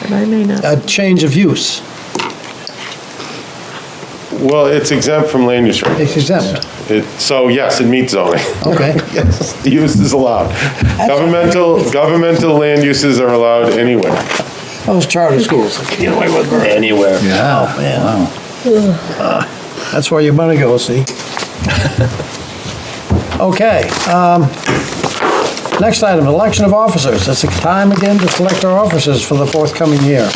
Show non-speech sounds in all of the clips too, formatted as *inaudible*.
I may not. a change of use, Well, it's exempt from land use. reg- it's exempt, it- So yes, it meets zoning. *laughs* okay. Yes, the use is allowed. Governmental, governmental land uses are allowed anywhere. Those charter schools, get away with murder. anywhere. Oh, man. Uh, That's where your money goes, see? *laughs* Okay, um, next item, election of officers. It's the time again to select our officers for the forthcoming year.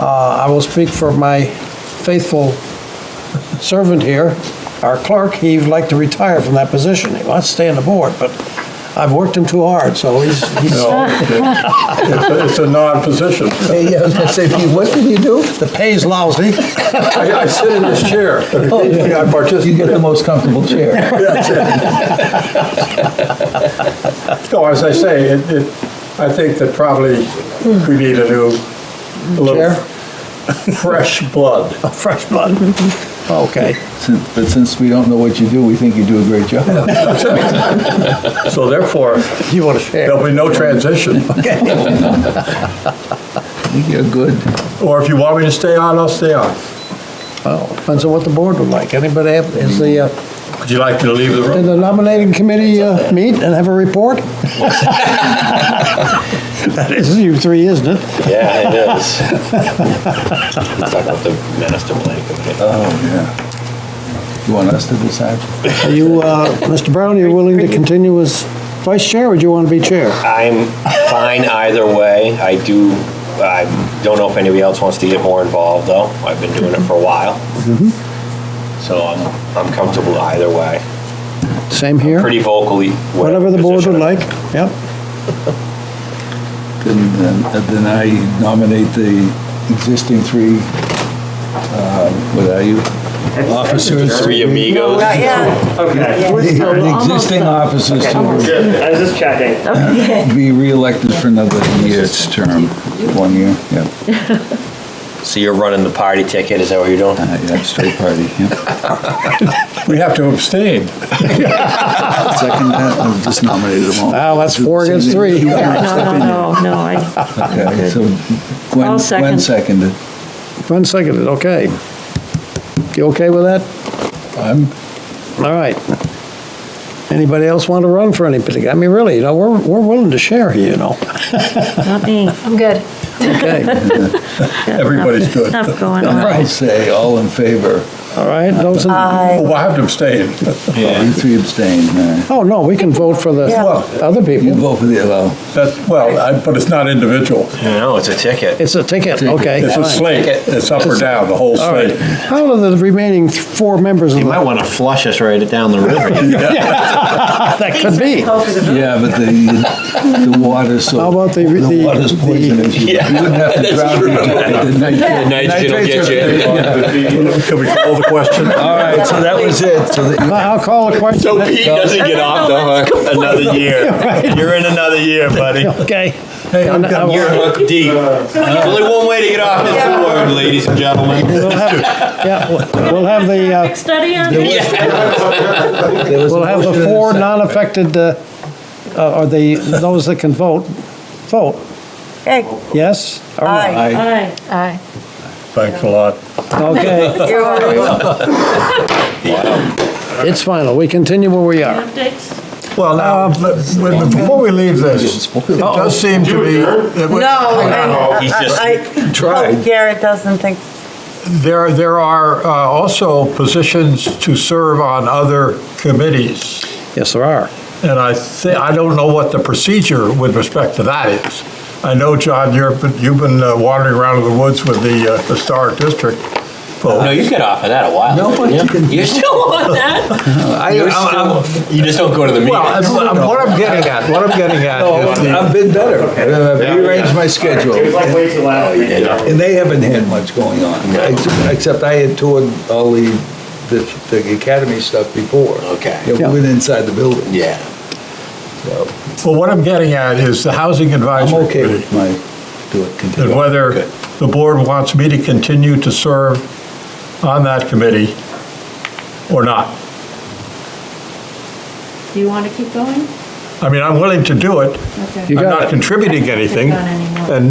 Uh, I will speak for my faithful servant here, our clerk. He'd like to retire from that position. He wants to stay on the board, but I've worked him too hard, so he's, he's *laughs* It's a- It's a non-position. Hey, yeah, I was gonna say, Pete, what did you do? the pay's lousy. I I sit in this chair. I Oh, You participate. get the most comfortable *laughs* chair. No, as I say, it, it- I think that probably we need a new, a little Chair? fresh *laughs* blood. Fresh blood. Okay. Sin- But since we don't know what you do, we think you do a great job. So therefore, You want to share? there'll be no transition. *laughs* I think you're good. Or if you want me to stay on, I'll stay on. Well, depends on what the board would like. Anybody have, is the, uh, Would you like me to leave the did room? the nominating committee uh, meet and have a report? *laughs* That is you three, isn't it? Yeah, it is. *laughs* Let's talk about the master plan. committee. Oh, yeah. You want us to decide? Are you, uh, Mr. Brown, are you willing to continue as vice chair or do you want to be chair? I'm fine either way. I do, I don't know if anybody else wants to get more involved, though. I've been doing it for a while. So I'm, I'm comfortable either way. Same here, Pretty vocally. with whatever the board would position. like. Yep. Then, then- uh, then I nominate the existing three, uh, what are you? Officers. Three *laughs* amigos. Okay. We're still The almost existing done. officers to I was just checking. be reelected for another year's term, one year, yeah. So you're running the party ticket, is that what you're doing? Uh, Yeah, straight party, yeah. *laughs* We have to abstain. Second, that, I've just nominated them all. Now, that's four against three. *laughs* No, no, no, no, I, Okay, so Gwen, I'll Gwen second. seconded. Glenn seconded, okay. You okay with that? I'm All right. Anybody else want to run for any particular, I mean, really, you know, we're, we're willing to share here, you know? not me. I'm good. Okay, Everybody's good. Enough going on. I'll say all in favor. all right, those in, Oh, well, I have to abstain. You three abstain. uh, oh, no, we can vote for the Well- other You people. vote for the, well, That's, well, I- but it's not individual. No, it's a ticket. It's a ticket, okay. It's a fine. slate. It's up or down, the whole All right. slate. How are the remaining th- four members of You might the, want to flush us right down the river. that could be? yeah, but the, the water's so. How about the- the- The water's poisonous. You Yeah, wouldn't have to that's drown true. me. *laughs* Nitrogen will get you. Can we call the uh, question? All right, so that was it. So the- I'll call a question, So Pete doesn't get off the hook another year. You're in another year, buddy. okay. Hey, I'm And I done. will- You're hooked deep. There's only one way to get off this board, ladies and gentlemen. Yeah, we'll- we'll have the, uh, Traffic study on it? there was a we'll have motion the and a four second. non-affected, uh, uh, or the, those that can vote, vote, Okay, yes? or no? Aye. Aye. Aye. Thanks a lot. Okay, you're welcome. *laughs* it's final, we continue where we are. Updates? Well, now, let- let- before we leave this, it does seem to be. that we- No, I, Oh, He's just- I, I Tried. hope Garrett doesn't think There, there are uh, also positions to serve on other committees. Yes, there are. And I thi, I don't know what the procedure with respect to that is. I know, John, you're, you've been uh, wandering around in the woods with the uh, historic district. No, you got off of that a while. No, but you can- You're still on that? You're still- You just don't go to the Well, I'm- meetings. I'm- what I'm getting at, what I'm getting at No, is the- I've been better. I've rearranged my schedule. like way too loud. And they haven't had much going on, ex- except I had toured all the, the the academy stuff before. Okay. Yeah, we went inside the building. Yeah. So well, what I'm getting at is the housing I'm advisory okay committee. with my, do it, continue. And whether the board wants me to continue to serve on that committee or not. Do you want to keep going? I mean, I'm willing to do it. Okay. I'm got not it. contributing anything. Not anymore. And